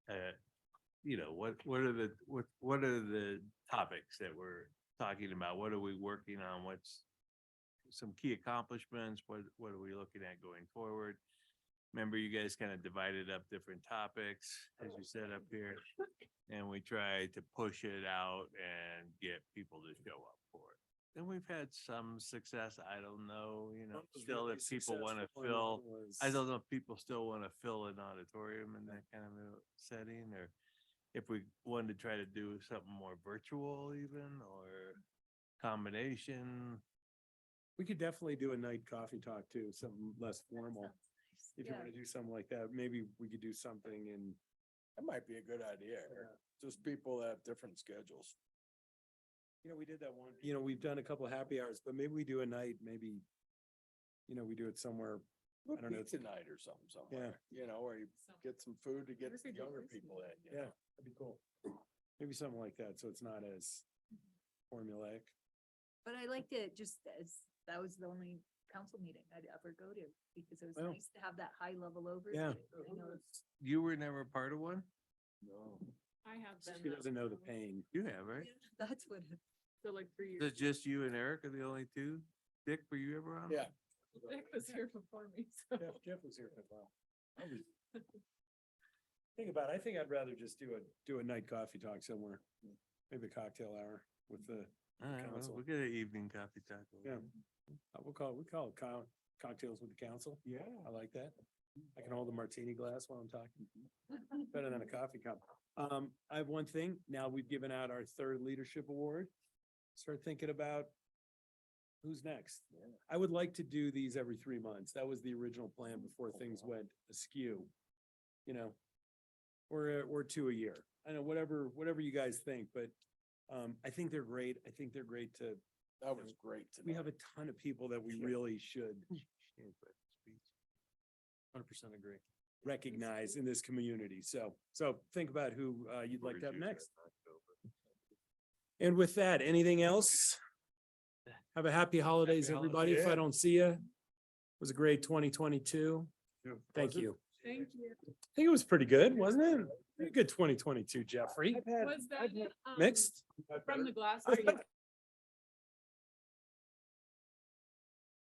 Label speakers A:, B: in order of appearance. A: uh, you know, what, what are the, what, what are the topics that we're talking about? What are we working on? What's some key accomplishments? What, what are we looking at going forward? Remember, you guys kind of divided up different topics, as you said up here. And we tried to push it out and get people to show up for it. And we've had some success. I don't know, you know, still if people want to fill. I don't know if people still want to fill an auditorium in that kind of a setting, or if we wanted to try to do something more virtual even, or combination.
B: We could definitely do a night coffee talk too, something less formal. If you
C: Yeah.
B: want to do something like that, maybe we could do something in,
D: That might be a good idea, Eric. just people that have different schedules.
B: you know, we did that one, you know, we've done a couple of happy hours, but maybe we do a night, maybe, you know, we do it somewhere.
D: Put
B: I don't know.
D: pizza night or something somewhere, you know, or you get some food to get
C: Or we
D: the
C: could do
D: younger
C: Christmas.
D: people in, you
B: Yeah,
D: know?
B: that'd be cool. Maybe something like that, so it's not as formulaic.
C: But I liked it just as, that was the only council meeting I'd ever go to because it was
B: Well.
C: nice to have that high level overview.
B: Yeah.
C: I know it's-
A: You were never part of one?
D: No.
E: I have been.
B: She
E: though,
B: doesn't know the
E: so-
B: pain.
A: You have, right?
C: That's what,
E: So like three
A: Is
E: years.
A: it just you and Eric are the only two? Dick, were you ever on?
D: Yeah.
E: Nick was here before me, so.
B: Jeff, Jeff was here for a while. I was- Think about it, I think I'd rather just do a, do a night coffee talk somewhere, maybe a cocktail hour with the,
A: All right, well,
B: Council.
A: we'll get an evening coffee talk.
B: yeah. Uh, We'll call, it- we call it co- cocktails with the council. Yeah. I like that. I can hold a martini glass while I'm talking. Better than a coffee cup. Um, I have one thing. Now we've given out our third leadership award. Start thinking about who's next. I would like to do these every three months. That was the original plan before things went askew. You know, or, or two a year. I know, whatever, whatever you guys think, but, um, I think they're great. I think they're great to,
D: That was great tonight.
B: we have a ton of people that we
D: Yeah.
B: really should
A: Can't put speech.
B: hundred percent agree. Recognize in this community. So, so think about who, uh, you'd like to have
A: Reduce it
B: next.
A: in October.
B: And with that, anything else? Have a happy holidays,
A: Happy
B: everybody. If I
D: holidays.
B: don't see you, it was a great twenty twenty-two. Thank you.
E: Thank you.
B: I think it was pretty good, wasn't it? Pretty good twenty twenty-two, Jeffrey.
E: Was that um,
B: Mixed?
E: from the glass?
B: I
E: or you-